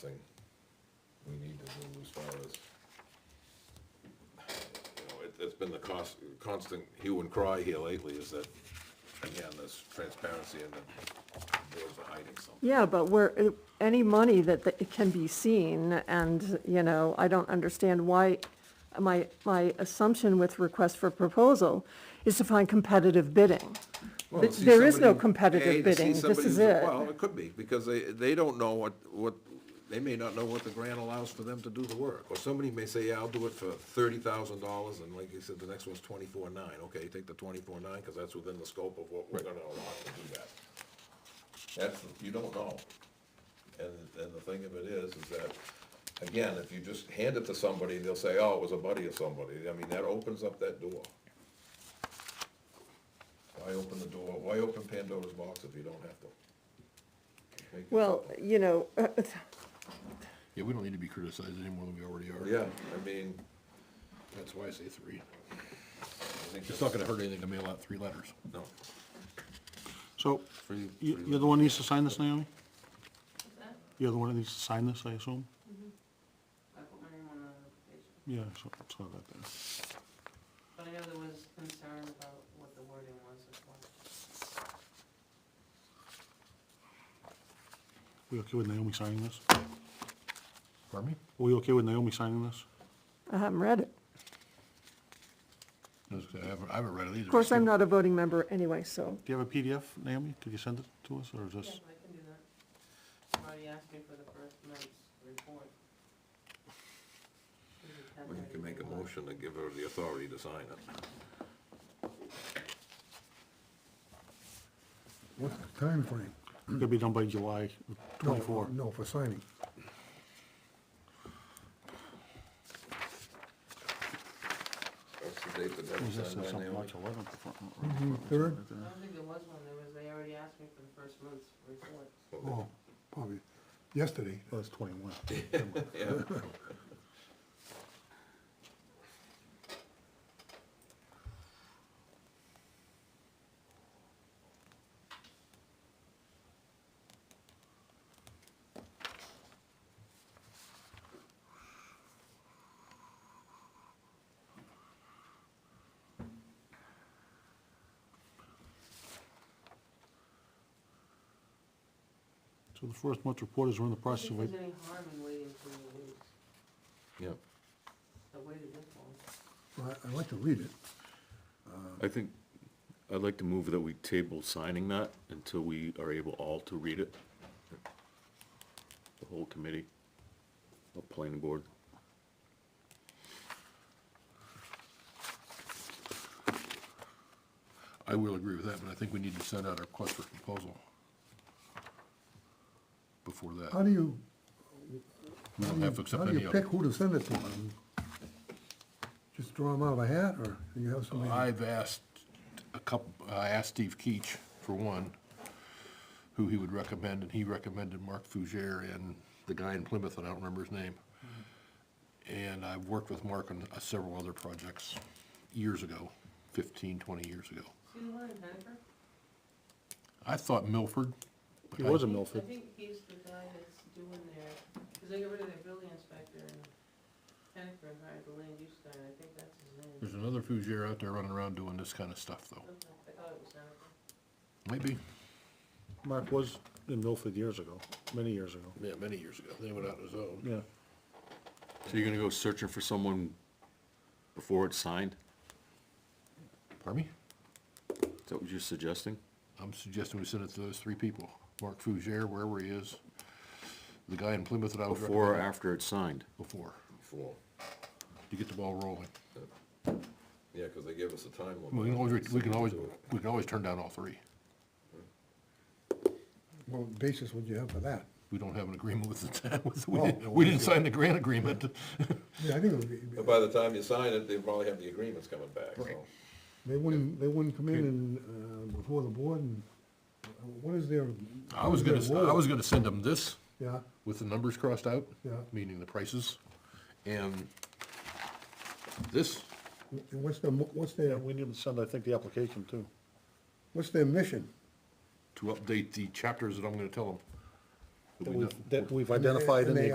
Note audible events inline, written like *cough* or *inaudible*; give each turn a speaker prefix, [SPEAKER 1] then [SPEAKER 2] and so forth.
[SPEAKER 1] thing we need to do as far as, you know, it, it's been the cost, constant hue and cry here lately is that, again, there's transparency and that there's the hiding something.
[SPEAKER 2] Yeah, but where, uh, any money that, that it can be seen, and, you know, I don't understand why, my, my assumption with request for proposal is to find competitive bidding.
[SPEAKER 1] Well,
[SPEAKER 2] But
[SPEAKER 1] see
[SPEAKER 2] there is no
[SPEAKER 1] somebody-
[SPEAKER 2] competitive
[SPEAKER 1] A, to see
[SPEAKER 2] bidding. This
[SPEAKER 1] somebody
[SPEAKER 2] is
[SPEAKER 1] who's-
[SPEAKER 2] it.
[SPEAKER 1] Well, it could be, because they, they don't know what, what, they may not know what the grant allows for them to do the work. Or somebody may say, yeah, I'll do it for thirty thousand dollars, and like you said, the next one's twenty-four nine, okay, take the twenty-four nine, because that's within the scope of what we're gonna allow to do that. That's, you don't know. And, and the thing of it is, is that, again, if you just hand it to somebody, they'll say, oh, it was a buddy of somebody, I mean, that opens up that door. Why open the door, why open Pandora's box if you don't have to? Make it-
[SPEAKER 2] Well, you know, *laughs* uh,
[SPEAKER 3] Yeah, we don't need to be criticized any more than we already are.
[SPEAKER 1] Yeah, I mean,
[SPEAKER 3] That's why I say three.
[SPEAKER 1] I think
[SPEAKER 3] It's not
[SPEAKER 1] that's,
[SPEAKER 3] gonna hurt anything to mail out three letters.
[SPEAKER 1] no,
[SPEAKER 4] So,
[SPEAKER 1] free,
[SPEAKER 4] you- you're the one who needs to sign this, Naomi? You're the one that needs to sign this, I assume?
[SPEAKER 5] I put my name on the application,
[SPEAKER 4] Yeah, I saw saw that there.
[SPEAKER 5] but I know there was concern about what the wording was as well.
[SPEAKER 4] We okay with Naomi signing this?
[SPEAKER 3] Pardon me?
[SPEAKER 4] We okay with Naomi signing this?
[SPEAKER 2] I haven't read it.
[SPEAKER 3] I was gonna- I haven't, I haven't read it either.
[SPEAKER 2] Of course, I'm not a voting member anyway, so,
[SPEAKER 4] Do you have a PDF, Naomi? Could you send it to us, or is this?
[SPEAKER 5] Yeah, I can do that. Marty asked me for the first month's report.
[SPEAKER 1] *laughs* we can make a motion to give her the authority to sign it.
[SPEAKER 6] What's the timeframe?
[SPEAKER 4] It'll be done by July
[SPEAKER 6] No,
[SPEAKER 4] twenty-four.
[SPEAKER 6] No, for signing.
[SPEAKER 1] That's the date that that was
[SPEAKER 4] Was this
[SPEAKER 1] signed by
[SPEAKER 4] something
[SPEAKER 1] Naomi.
[SPEAKER 4] like eleventh? or something?
[SPEAKER 6] Mm-hmm.
[SPEAKER 5] I
[SPEAKER 6] Third,
[SPEAKER 5] don't think there was one, there was, they already asked me for the first month's report.
[SPEAKER 6] oh, probably yesterday.
[SPEAKER 4] Well, it's twenty-one.
[SPEAKER 1] Yeah,
[SPEAKER 4] So the first month's report is we're in the
[SPEAKER 5] I
[SPEAKER 4] process
[SPEAKER 5] think
[SPEAKER 4] of,
[SPEAKER 5] there's any harm in waiting for the weeks,
[SPEAKER 1] yeah.
[SPEAKER 5] I waited this long.
[SPEAKER 6] Well, I- I'd like to read it.
[SPEAKER 7] I think, I'd like to move that we table signing that until we are able all to read it. The whole committee, the planning board.
[SPEAKER 3] *laughs* I will agree with that, but I think we need to send out a request for proposal before
[SPEAKER 6] How
[SPEAKER 3] that.
[SPEAKER 6] do you,
[SPEAKER 3] We don't have to
[SPEAKER 6] how
[SPEAKER 3] accept
[SPEAKER 6] do
[SPEAKER 3] any
[SPEAKER 6] you
[SPEAKER 3] of it.
[SPEAKER 6] pick who to send it to? Um, Just draw them out of a hat, or do you have
[SPEAKER 4] Oh,
[SPEAKER 6] somebody?
[SPEAKER 3] I've asked a couple, I asked Steve Keach, for one, who he would recommend, and he recommended Mark Fugere and the guy in Plymouth, and I don't remember his name. And I've worked with Mark on uh, several other projects years ago, 15, 20 years ago.
[SPEAKER 5] See the one in Hennifer?
[SPEAKER 3] I thought Milford. but
[SPEAKER 4] He
[SPEAKER 3] I-
[SPEAKER 4] was a
[SPEAKER 5] I
[SPEAKER 4] Milford.
[SPEAKER 5] think he's the guy that's doing their, because they got rid of their building inspector in Hennifer and hired the land use guy, and I think that's his name.
[SPEAKER 3] There's another Fugere out there running around doing this kind of stuff, though.
[SPEAKER 5] Okay, I thought it was Hennifer.
[SPEAKER 3] Maybe,
[SPEAKER 4] Mark was in Milford years ago, many years ago.
[SPEAKER 3] yeah, many years ago. They went out on his own.
[SPEAKER 4] Yeah.
[SPEAKER 7] So you're gonna go searching for someone before it's signed?
[SPEAKER 3] Pardon me?
[SPEAKER 7] Is that what you're suggesting?
[SPEAKER 3] I'm suggesting we send it to those three people. Mark Fugere, wherever he is, the guy in Plymouth that I was
[SPEAKER 7] Before or
[SPEAKER 3] recommending.
[SPEAKER 7] after it's signed?
[SPEAKER 3] Before,
[SPEAKER 1] Before,
[SPEAKER 3] to get the ball rolling.
[SPEAKER 1] yeah, because they gave us a time limit.
[SPEAKER 3] We can always, we can always,
[SPEAKER 1] Do it.
[SPEAKER 3] we can always turn down all three.
[SPEAKER 6] What basis would you have for that?
[SPEAKER 3] We don't have an agreement with the town, *laughs* with, we
[SPEAKER 7] Oh.
[SPEAKER 6] No.
[SPEAKER 3] didn't, we didn't sign the
[SPEAKER 7] *laughs*
[SPEAKER 3] grant agreement.
[SPEAKER 6] Yeah, I think it would be,
[SPEAKER 1] But by the time you sign it, they probably have the agreements coming back, so.
[SPEAKER 6] they wouldn't, they wouldn't come in and, uh, before the board and, uh, what is their?
[SPEAKER 3] I was
[SPEAKER 6] what
[SPEAKER 3] gonna,
[SPEAKER 6] is their
[SPEAKER 3] I
[SPEAKER 6] role?
[SPEAKER 3] was gonna send them this
[SPEAKER 6] Yeah,
[SPEAKER 3] with the numbers crossed out,
[SPEAKER 6] Yeah.
[SPEAKER 3] meaning the prices, and this,
[SPEAKER 6] and what's their, mo- what's their,
[SPEAKER 4] we need to send, I think, the application too.
[SPEAKER 6] what's their mission?
[SPEAKER 3] to update the chapters that I'm gonna tell them.
[SPEAKER 4] That we've, that we've
[SPEAKER 6] And they-
[SPEAKER 4] identified in
[SPEAKER 6] and
[SPEAKER 4] the
[SPEAKER 6] they